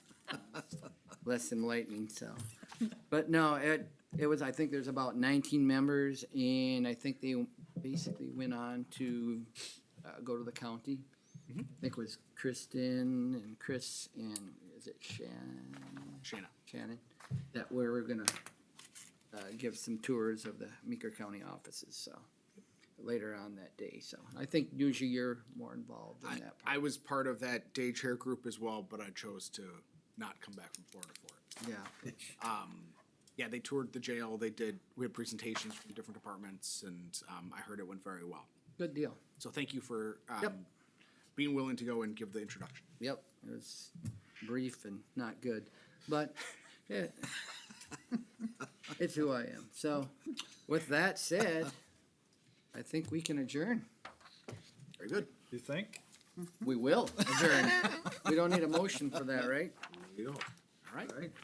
less than lightning, so. But no, it, it was, I think there's about nineteen members and I think they basically went on to uh, go to the county. Mm-hmm. I think it was Kristen and Chris and is it Shannon? Shanna. Shannon, that we were gonna uh, give some tours of the Meeker County offices, so. Later on that day, so I think usually you're more involved in I, that. part. I was part of that day chair group as well, but I chose to not come back from Florida for it. Yeah, Yeah, they toured the jail. They did, we had presentations from different departments and, um, I heard it went very well. good deal. So thank you for, Yep. um, being willing to go and give the introduction. Yep, it was brief and not good, but eh, it's who I am. So with that said, I think we can adjourn. Very good. You think? We will adjourn. We don't need a motion for that, right? You know.